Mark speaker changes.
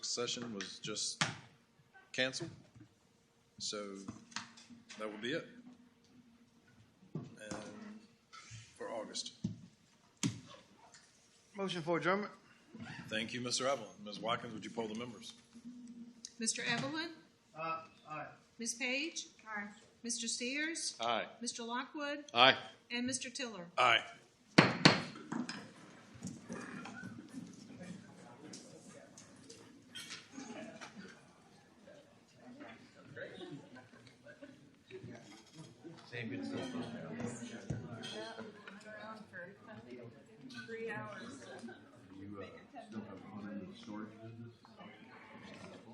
Speaker 1: session was just canceled. So that would be it. And for August.
Speaker 2: Motion for adjournment?
Speaker 1: Thank you, Mr. Evelyn. Ms. Watkins, would you poll the members?
Speaker 3: Mr. Evelyn?
Speaker 2: Uh, aye.
Speaker 3: Ms. Page? Aye. Mr. Sears?
Speaker 4: Aye.
Speaker 3: Mr. Lockwood?
Speaker 4: Aye.
Speaker 3: And Mr. Tiller?
Speaker 1: Aye.
Speaker 5: Same, it's so fun.